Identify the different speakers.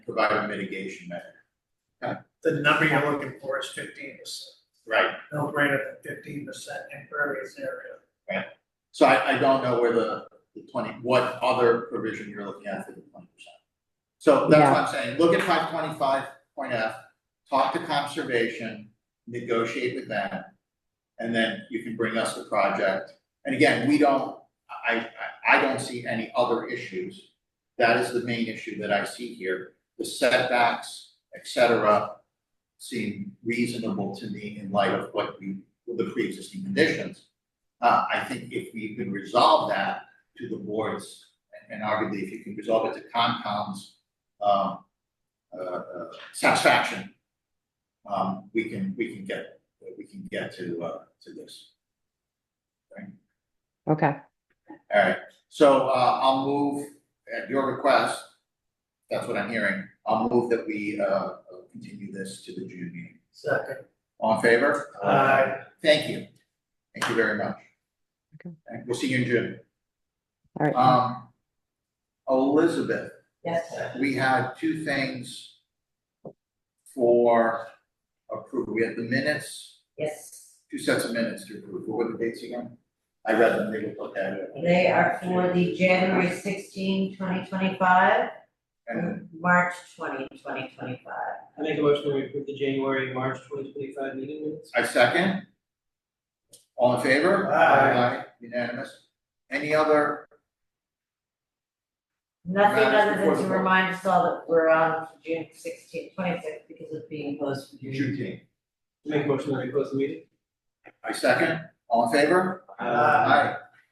Speaker 1: provide a mitigation measure.
Speaker 2: The number you're looking for is fifteen percent,
Speaker 1: Right.
Speaker 2: no greater than fifteen percent impervious area.
Speaker 1: So I, I don't know where the, the twenty, what other provision you're looking at for the twenty percent. So that's what I'm saying, look at five twenty-five point F, talk to conservation, negotiate with them. And then you can bring us the project, and again, we don't, I, I, I don't see any other issues. That is the main issue that I see here, the setbacks, et cetera, seem reasonable to me in light of what we, the pre-existing conditions. Uh, I think if we can resolve that to the boards, and and arguably if you can resolve it to Concom's um, uh, uh, satisfaction, um, we can, we can get, we can get to, uh, to this.
Speaker 3: Okay,
Speaker 1: All right, so, uh, I'll move, at your request, that's what I'm hearing, I'll move that we, uh, continue this to the June meeting.
Speaker 2: Second.
Speaker 1: All in favor?
Speaker 2: Aye.
Speaker 1: Thank you. Thank you very much.
Speaker 3: Okay.
Speaker 1: And we'll see you in June.
Speaker 3: all right.
Speaker 1: Um, Elizabeth,
Speaker 4: Yes,
Speaker 1: we had two things for approval. We had the minutes,
Speaker 4: yes,
Speaker 1: two sets of minutes to approve. What were the dates again? I read them, they looked okay.
Speaker 4: they are for the January 16, 2025,
Speaker 1: And
Speaker 4: and March 20, 2025.
Speaker 5: I make a motion to approve the January, and March twenty twenty five meeting minutes.
Speaker 1: I second. All in favor?
Speaker 2: Aye.
Speaker 1: Unanimous. Any other,
Speaker 4: Nothing
Speaker 1: Matters
Speaker 4: other
Speaker 1: before
Speaker 4: than
Speaker 1: the
Speaker 4: to
Speaker 1: vote.
Speaker 4: remind us all that we're on June 16, 26 because of being closed for June.
Speaker 1: June team?
Speaker 5: Make a motion to close the meeting.
Speaker 1: I second. All in favor?
Speaker 2: Aye.
Speaker 1: Aye.